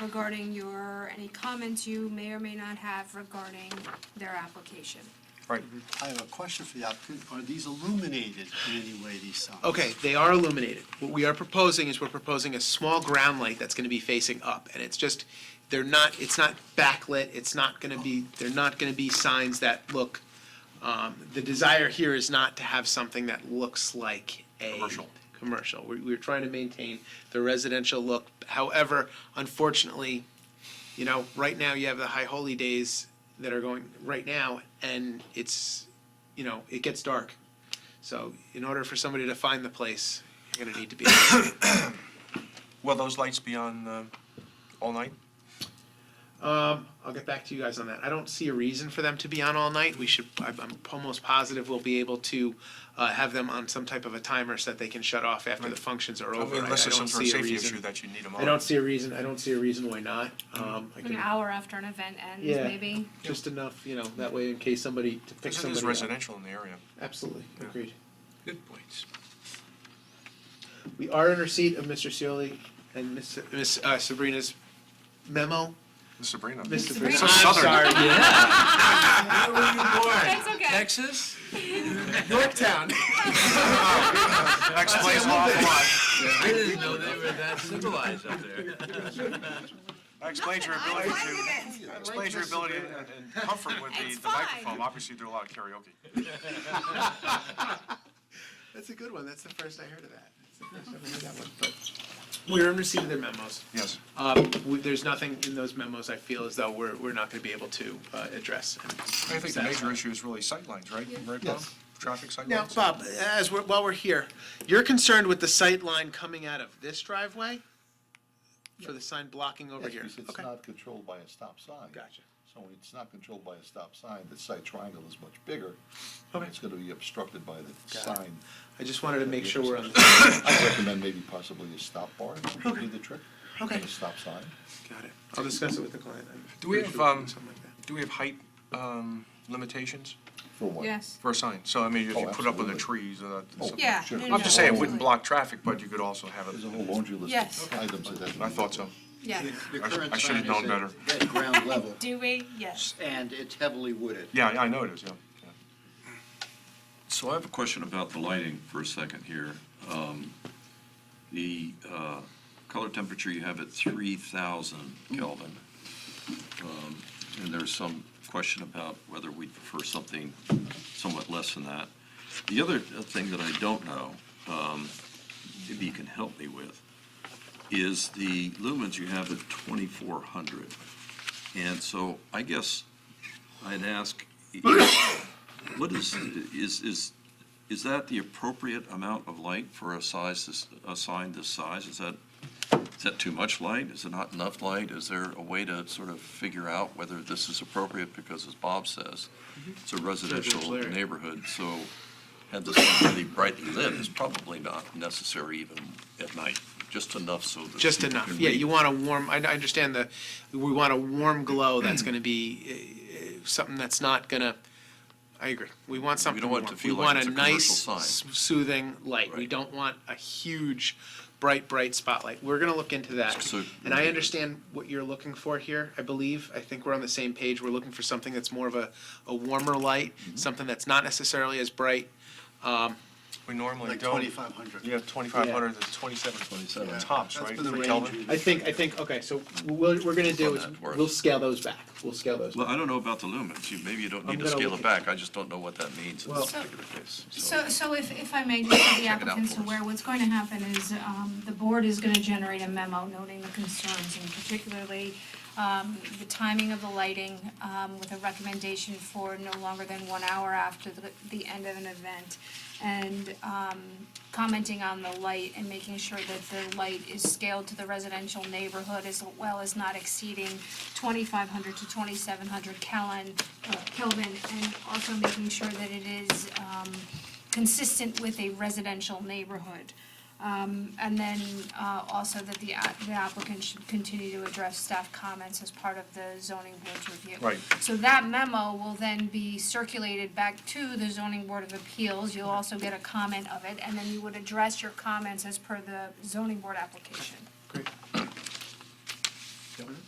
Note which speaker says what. Speaker 1: regarding your, any comments you may or may not have regarding their application.
Speaker 2: Right.
Speaker 3: I have a question for the applicant. Are these illuminated in any way, these signs?
Speaker 4: Okay, they are illuminated. What we are proposing is we're proposing a small ground light that's gonna be facing up, and it's just, they're not, it's not backlit, it's not gonna be, they're not gonna be signs that look, um, the desire here is not to have something that looks like a.
Speaker 2: Commercial.
Speaker 4: Commercial. We, we're trying to maintain the residential look. However, unfortunately, you know, right now you have the high holy days that are going right now, and it's, you know, it gets dark. So in order for somebody to find the place, you're gonna need to be.
Speaker 2: Will those lights be on uh, all night?
Speaker 4: um, I'll get back to you guys on that. I don't see a reason for them to be on all night. We should. I'm, I'm almost positive we'll be able to uh, have them on some type of a timer so that they can shut off after the functions are
Speaker 2: I
Speaker 4: over.
Speaker 2: mean, Unless there's
Speaker 4: I, I
Speaker 2: some
Speaker 4: don't
Speaker 2: sort of
Speaker 4: see a
Speaker 2: safety
Speaker 4: reason.
Speaker 2: issue that you need them on.
Speaker 4: I don't see a reason. I don't see a reason why not. Um, I
Speaker 1: An
Speaker 4: can,
Speaker 1: hour after an event ends,
Speaker 4: Yeah.
Speaker 1: maybe?
Speaker 4: just enough, you know, that way in case somebody to pick
Speaker 2: Because it
Speaker 4: somebody.
Speaker 2: is
Speaker 4: up.
Speaker 2: residential in the area.
Speaker 4: Absolutely, agreed.
Speaker 5: Good points.
Speaker 4: We are in receipt of Mr. Cioli and Miss Miss, uh, Sabrina's memo.
Speaker 2: Sabrina.
Speaker 4: Miss
Speaker 1: Sabrina.
Speaker 4: Sabrina,
Speaker 1: So
Speaker 4: I'm
Speaker 2: southern.
Speaker 4: sorry, yeah.
Speaker 5: Where were you
Speaker 1: That's okay.
Speaker 5: Texas? Yorktown.
Speaker 2: Explains a lot.
Speaker 5: I didn't know they were that civilized up there.
Speaker 2: Explains your ability
Speaker 1: fine
Speaker 2: to, explains your ability and and comfort with the
Speaker 1: It's
Speaker 2: the microphone.
Speaker 1: fine.
Speaker 2: Obviously, you do a lot of karaoke.
Speaker 4: That's a good one. That's the first I heard of that. That's the first I've heard that one. But We're in receipt of their memos.
Speaker 2: Yes.
Speaker 4: Um, we- there's nothing in those memos I feel as though we're, we're not gonna be able to, uh, address. and
Speaker 2: I think the major issue is really sightlines, right? Right, Bob?
Speaker 4: Yes.
Speaker 2: Traffic sightlines?
Speaker 4: Now, Bob, as we're, while we're here, you're concerned with the sight line coming out of this driveway? For the sign blocking over here?
Speaker 6: Yes, because it's
Speaker 4: Okay.
Speaker 6: not controlled by a stop sign.
Speaker 4: Gotcha.
Speaker 6: So when it's not controlled by a stop sign, the side triangle is much bigger. and
Speaker 4: Okay.
Speaker 6: It's gonna be obstructed by the
Speaker 4: Got it.
Speaker 6: sign.
Speaker 4: I just wanted to make sure we're on.
Speaker 6: I recommend maybe possibly a stop bar, would be the trick.
Speaker 4: Okay.
Speaker 6: A stop sign.
Speaker 4: Got it. I'll discuss it with the client. I'm
Speaker 2: Do we
Speaker 4: pretty
Speaker 2: have,
Speaker 4: sure can do
Speaker 2: um,
Speaker 4: something like that.
Speaker 2: do we have height um, limitations
Speaker 6: For what?
Speaker 1: Yes.
Speaker 2: for a sign? So, I mean, if you
Speaker 6: Oh,
Speaker 2: put up with the
Speaker 6: absolutely.
Speaker 2: trees, uh,
Speaker 6: Oh,
Speaker 2: something-
Speaker 1: Yeah,
Speaker 6: sure.
Speaker 1: no, no,
Speaker 2: I'm just saying, it
Speaker 1: no.
Speaker 2: wouldn't block traffic, but you could also have
Speaker 6: There's a
Speaker 2: it.
Speaker 6: whole laundry
Speaker 1: Yes.
Speaker 6: list of items that have.
Speaker 2: I thought so.
Speaker 1: Yeah.
Speaker 7: The
Speaker 2: I sh-
Speaker 7: current
Speaker 2: I should have
Speaker 7: sign
Speaker 2: known
Speaker 7: is
Speaker 2: better.
Speaker 7: at- At ground level,
Speaker 1: Do we? Yes.
Speaker 7: and it's heavily wooded.
Speaker 2: Yeah, yeah, I know it is, yeah. yeah.
Speaker 8: So I have a question about the lighting for a second here. Um, The uh, color temperature you have at 3,000 Kelvin. Um, And there's some question about whether we'd prefer something somewhat less than that. The other uh, thing that I don't know, um, maybe you can help me with, is the lumens you have at 2,400. And so I guess I'd ask, what is, is, is, is that the appropriate amount of light for a size, this- a sign this size? Is that, is that too much light? Is it not enough light? Is there a way to sort of figure out whether this is appropriate? Because as Bob says, it's a residential
Speaker 4: Residential area.
Speaker 8: neighborhood, so had this thing really brightly lit, it's probably not necessary even at night, just enough so that.
Speaker 4: Just
Speaker 8: people
Speaker 4: enough.
Speaker 8: can
Speaker 4: Yeah,
Speaker 8: read.
Speaker 4: you want a warm, I, I understand the, we want a warm glow that's gonna be, uh, something that's not gonna, I agree. We want something
Speaker 8: want it
Speaker 4: warm.
Speaker 8: to feel like it's a commercial
Speaker 4: We want a nice
Speaker 8: sign.
Speaker 4: s- soothing light. We
Speaker 8: Right.
Speaker 4: don't want a huge, bright, bright spotlight. We're gonna look into that.
Speaker 8: So-
Speaker 4: And I understand what you're looking for here, I believe. I think we're on the same page. We're looking for something that's more of a, a warmer light,
Speaker 8: Mm-hmm.
Speaker 4: something that's not necessarily as bright.
Speaker 2: We normally
Speaker 3: Like
Speaker 2: don't.
Speaker 3: twenty-five hundred?
Speaker 2: You have 2,500 to 27,
Speaker 8: 27.
Speaker 2: tops, right?
Speaker 3: That's been the
Speaker 2: for
Speaker 3: range.
Speaker 2: Kelvin?
Speaker 3: we've-
Speaker 4: I think, I think, okay, so what we're gonna do is,
Speaker 8: On that for us.
Speaker 4: we'll scale those back. We'll scale those back.
Speaker 8: Well, I don't know about the lumens. You- Maybe you don't
Speaker 4: I'm
Speaker 8: need to
Speaker 4: gonna
Speaker 8: scale
Speaker 4: look
Speaker 8: it back. I just don't know what that means in
Speaker 4: Well-
Speaker 8: this particular case.
Speaker 1: So, so if, if I may, just so the
Speaker 8: Check it out
Speaker 1: applicants
Speaker 8: for us.
Speaker 1: aware, what's going to happen is, um, the board is gonna generate a memo noting the concerns, and particularly, um, the timing of the lighting, um, with a recommendation for no longer than one hour after the, the end of an event, and, um, commenting on the light and making sure that the light is scaled to the residential neighborhood as well as not exceeding twenty-five hundred to twenty-seven hundred Kelvin, uh, Kelvin, and also making sure that it is, um, consistent with a residential neighborhood. Um, and then, uh, also that the a- the applicant should continue to address staff comments as part of the zoning board's review.
Speaker 2: Right.
Speaker 1: So that memo will then be circulated back to the zoning board of appeals, you'll also get a comment of it, and then you would address your comments as per the zoning board application.
Speaker 4: Great.
Speaker 6: Yep.